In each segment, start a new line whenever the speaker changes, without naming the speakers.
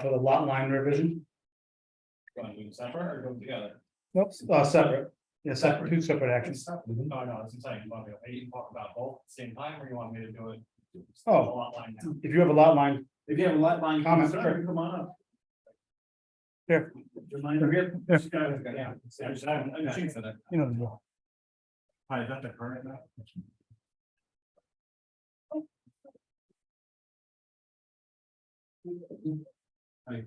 for the lot line revision,
Want to do them separate or do them together?
nope, uh, separate, yeah, separate, two separate Mm-hmm. actions.
No, Oh, no, it's insane. You want me to- you talk about both at the same time or you want me to do it?
Oh.
A lot line now.
If you have a lot line,
If you have a lot line
Comment,
concern, come on up.
Here.
Do you mind?
Yeah.
Just gotta-
Yeah.
yeah.
I just- I haven't- I haven't seen it.
you know, the drill.
Hi, is that the current map? Hi.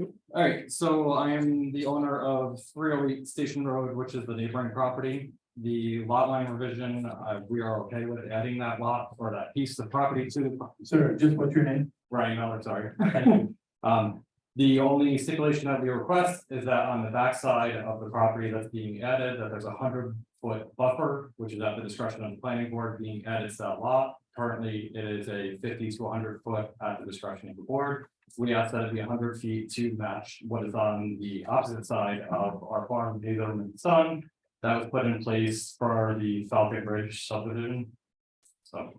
All right, so I am the owner of three oh eight Station Road, which is the neighboring property. The lot line revision, uh, we are okay with adding that lot or that piece of property to the
Sir, just what's your name?
Right, Miller, sorry. Um, the only stipulation that we request is that on the backside of the property that's being added, that there's a hundred foot buffer, which is at the discretion of the planning board being added to that lot. Currently, it is a fifty to hundred foot at the discretion of the board. We ask that it be hundred feet to match what is on the opposite side of our farm, Hazel and Son. That was put in place for the Falcon Bridge subdivision. So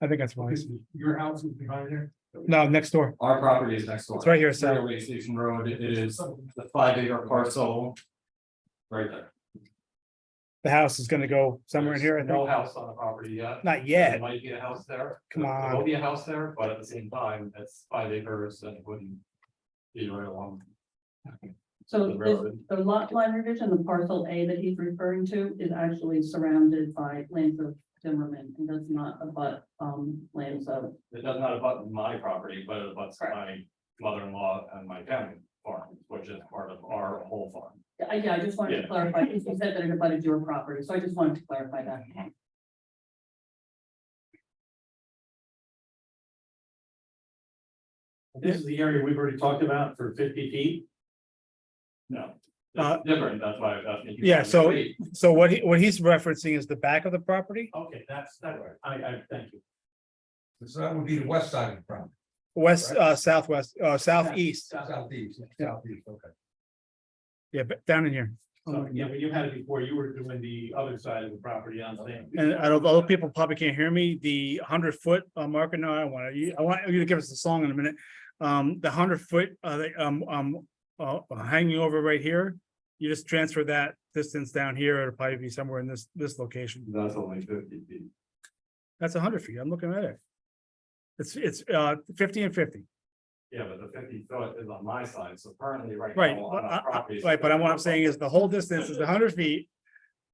I think that's wise,
Your house is behind there?
no, next door,
our property is next door.
it's right here,
Sorry,
Sal,
Way Station Road, it is the five acre parcel. Right there.
the house is gonna go somewhere in here, I
There's No
think,
house on the property yet.
not yet,
There Might be a house there.
Come on.
There will be a house there, but at the same time, that's five acres and it wouldn't. Be right along the
So this,
road.
the lot line revision, the parcel A that he's referring to is actually surrounded by lands of Zimmerman and does not abut, um, lands of.
It does not abut my property, but it abuts my mother-in-law and my family farm, which is part of our whole farm.
I, yeah, I just wanted
Yeah.
to clarify, because you said that it abutted your property, so I just wanted to clarify that.
This is the area we've already talked about for fifty feet.
No.
Uh,
It's different, that's why I was asking. you.
Yeah, so- so what he, what he's referencing is the back of the property,
Okay, that's, that, I, I, thank you.
So that would be the west side of the property,
west, uh, southwest, uh, southeast,
southeast, southeast, okay.
yeah, but down in here.
Oh,
So, yeah, when you had it before, you were doing the other side of the property on the.
And I don't, although people probably can't hear me, the hundred foot uh marker, no, I don't want you, I want you to give us the song in a minute. Um, the hundred foot, uh, the, um, um, uh, hanging over right here. You just transfer that distance down here, it'll probably be somewhere in this, this location.
That's only fifty feet.
That's hundred feet, I'm looking at it. It's, it's, uh, fifty and fifty,
Yeah, but the fifty foot is on my side, so currently right. now,
right,
on
but
our
I- I-
property is-
right, but I'm, what I'm saying is the whole distance is hundred feet.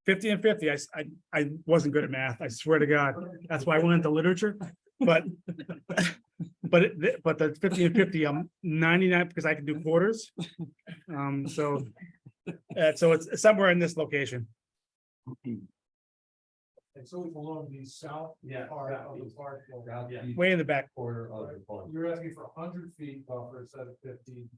Fifty and fifty, I, s- I, I wasn't good at math, I swear to God. That's why I went into literature, but. But it, but the fifty and fifty, I'm ninety-nine because I can do quarters. Um, so. Uh, so it's somewhere in this location.
It's always along the south
Yeah.
part of the park.
Southeast
Way in the back.
Corner of the farm.
You're asking for a hundred feet buffer instead of fifty.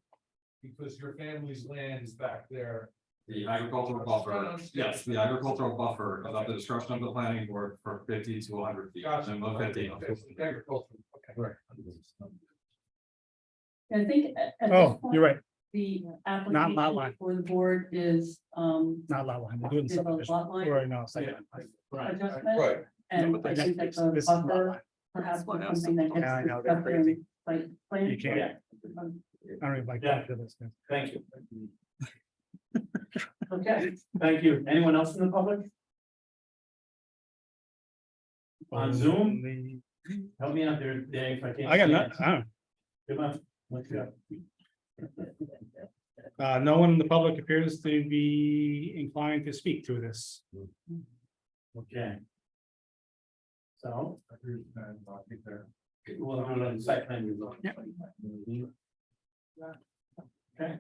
Because your family's land is back there.
The agricultural buffer, yes, the agricultural buffer is at the discretion of the planning board for fifty to hundred feet, minimum of fifty.
Agriculture, okay.
Right.
And I think at, at this
Oh, you're
point,
right,
the
lot line.
application for the board is, um,
not lot line, we're doing
is a
subdivision.
lot line
Or no,
Yeah.
uh, second.
Right.
adjustment.
Right,
No,
And
but
I
that's-
think that the
this is lot
buffer
line.
perhaps was something that
Yeah, I know,
gets
they're
discussed in, like, plan.
You can't.
Um,
I don't even like.
Yeah.
to do this, man.
Thank you.
Okay.
Thank you. Anyone else in the public? On Zoom?
Only-
Help me out there, Dave, if I can't.
I got
see
not,
it.
I
Come on, let's go.
don't- uh, no one in the public appears to be inclined to speak to this.
Okay. So. Well, I'm on the site plan review. Okay,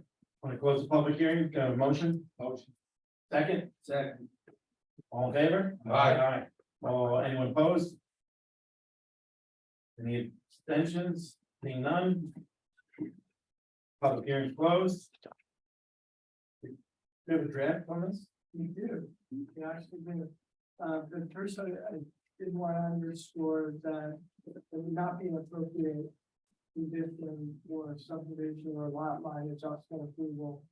want to close the public hearing, got a motion? Motion. Second? Second. All in favor?
Aye.
Aye. Well, anyone opposed? Any abstentions? Seeing none? Public hearing closed. Do you have a draft on this? We do. We actually do. Uh, but first, I, I did want to underscore that it would not be an appropriate condition or subdivision or lot line adjustment approval